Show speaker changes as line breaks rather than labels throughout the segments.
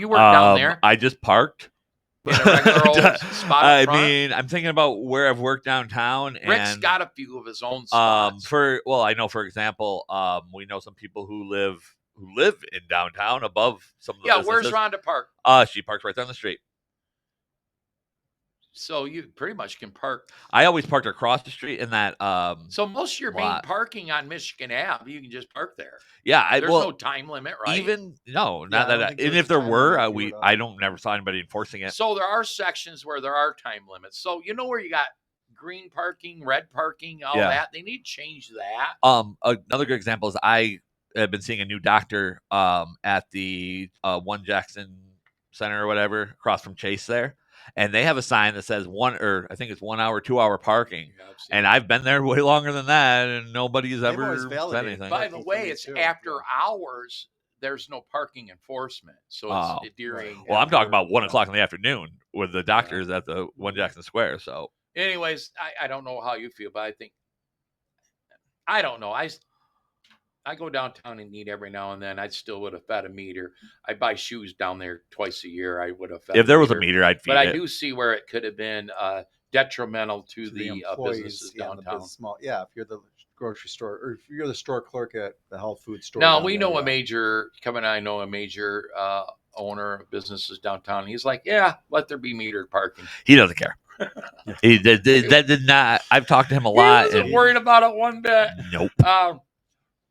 You work down
Um,
there.
I just parked.
In a regular old spot in
I
front?
mean, I'm thinking about where I've worked downtown.
Rick's
and,
got a few of his own
um
spots.
for well i know for example um we know some people who live who live in downtown above some of the
yeah, where's
businesses.
Rhonda Park?
uh she parks right down the street
So you pretty much can park.
i always parked across the street in that um
So most of your main
Lot.
parking on Michigan Ave, you can just park there.
yeah i
There's
well
no time limit, right?
even no
Yeah, I
not that
don't
I-
think
and
there's
if
a
there
time
were
limit
I,
if you
we
were to-
i don't never saw anybody enforcing it
So there are sections where there are time limits. So you know where you got green parking, red parking, all
Yeah.
that. They need to change that.
um another good example is i have been seeing a new doctor um at the uh one jackson center or whatever across from chase there and they have a sign that says one or i think it's one hour two hour parking And I've been there way longer than that, and nobody's
They've
ever
always
said
validated
anything.
that.
by
Like
the
eight
way, it's
thirty-two,
after
yeah.
hours. There's no parking enforcement, so it's
Oh.
during.
Well, I'm talking
after-
about one o'clock in the afternoon with the doctors at the one Jackson Square. So
Anyways, I, I don't know how you feel, but I think I don't know. I s- I go downtown and eat every now and then. I still would have fed a meter. I buy shoes down there twice a year. I would have. Fed
if there was a meter, I'd feed
but I
it.
do see where it could have been uh, detrimental to,
to
the, uh, businesses
yeah, and the
downtown.
bus- small, yeah, if you're the grocery store or if you're the store clerk at the health food store.
Now
down
we
there,
know
yeah.
a major. Kevin and I know a major uh, owner of businesses downtown. He's like, yeah, let there be metered parking.
he doesn't care. he did, did- that did not. I've talked to him a
he
lot.
wasn't
and-
worried about it one bit.
nope.
Um,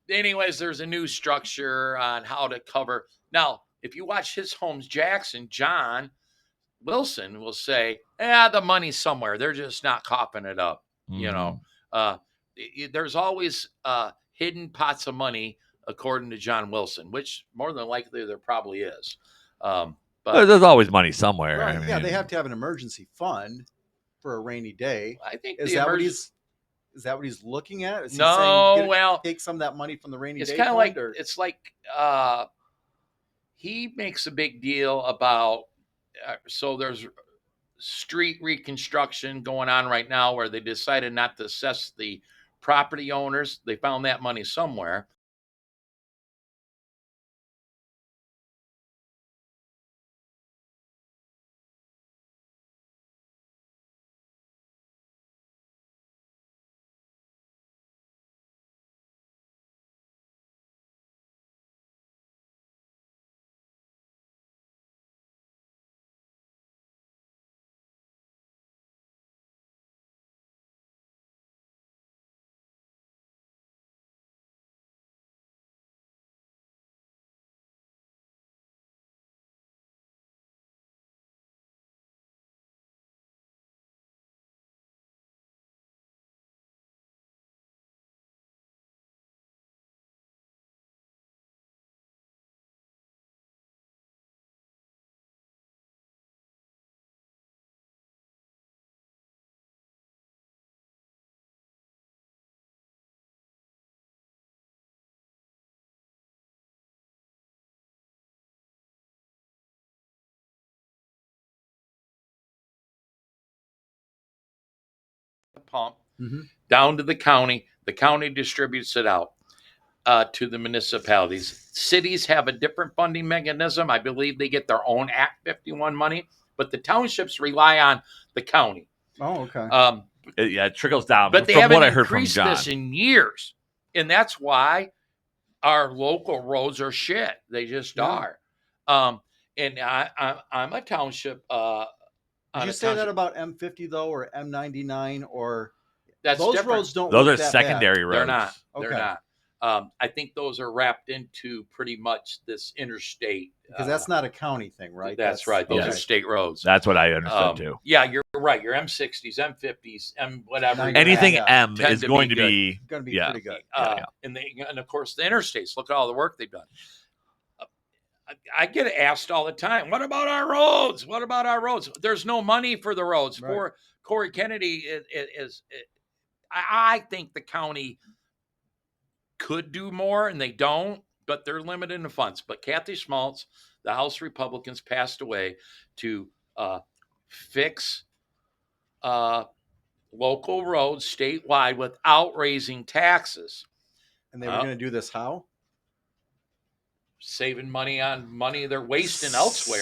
anyways, there's a new structure on how to cover. Now, if you watch his Holmes Jackson, John Wilson will say, "Yeah, the money's somewhere. They're just not coughing it up." You know, uh, y- y- there's always uh, hidden pots of money, according to John Wilson, which more than likely there probably is. Um,
Mm.
but
There- there's always money somewhere.
Right,
I
yeah, they
mean,
have to have an emergency fund for a rainy day.
I think
Is
the
that what
emergen-
he's? Is that what he's looking at? Is he saying,
no.
"Get it-
well,
take some of that money from the rainy
it's
day.
kind of like
fund," or-
it's like uh he makes a big deal about uh, so there's street reconstruction going on right now where they decided not to assess the property owners they found that money somewhere the pump
Mhm.
down to the county. The county distributes it out uh, to the municipalities. Cities have a different funding mechanism. I believe they get their own Act 51 money, but the townships rely on the county.
oh, okay.
Um,
It- yeah, it trickles down.
but they
from
haven't
what I heard from
increased
John,
this in years, and that's why our local roads are shit. They just
Yeah.
are. Um, and I, I, I'm a township. Uh,
Did
on
you
a
say that
township-
about M50 though, or M99, or
That's
those
different.
roads don't.
those
look
are
that bad.
secondary roads.
They're not. They're
Okay.
not. Um, I think those are wrapped into pretty much this interstate.
because
uh,
that's not a county thing, right?
That's, right. Those are
okay.
state roads.
That's what I understood
Um,
too.
Yeah, you're right. Your M60s, M50s, M whatever.
Nine-
you're at,
Anything
yeah,
M
tend
is
to be
going
good.
to be
going to be
Yeah.
pretty good.
Uh,
yeah.
And, they, and of course, the interstates. Look at all the work they've done. Uh, I I get asked all the time, "What about our roads? What about our roads?" There's no money for the roads.
Right.
For Corey Kennedy is, is, I I think the county could do more, and they don't, but they're limited in funds. But Kathy Schmaltz, the House Republicans, passed away to uh, fix uh, local roads statewide without raising taxes,
And they were
Uh,
going to do this how?
saving money on money they're wasting elsewhere.